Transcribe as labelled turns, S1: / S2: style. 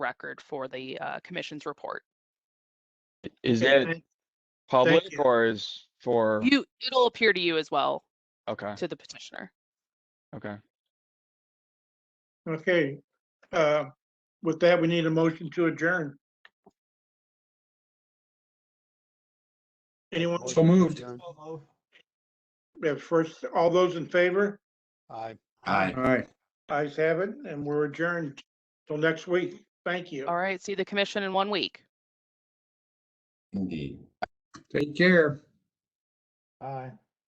S1: record for the uh, commission's report.
S2: Is
S3: Okay,
S2: it
S3: thank-
S2: public
S3: you.
S2: or is for,
S1: You, it'll appear to you as well,
S2: okay,
S1: to the petitioner.
S2: okay.
S3: Okay, uh, with that, we need a motion to adjourn. Anyone,
S4: So moved.
S3: we have first, all those in favor?
S4: Aye.
S5: Aye.
S4: Aye.
S3: Eyes have it, and we're adjourned till next week. Thank you.
S1: All right, see the commission in one week.
S5: Indeed.
S4: Take care. Aye.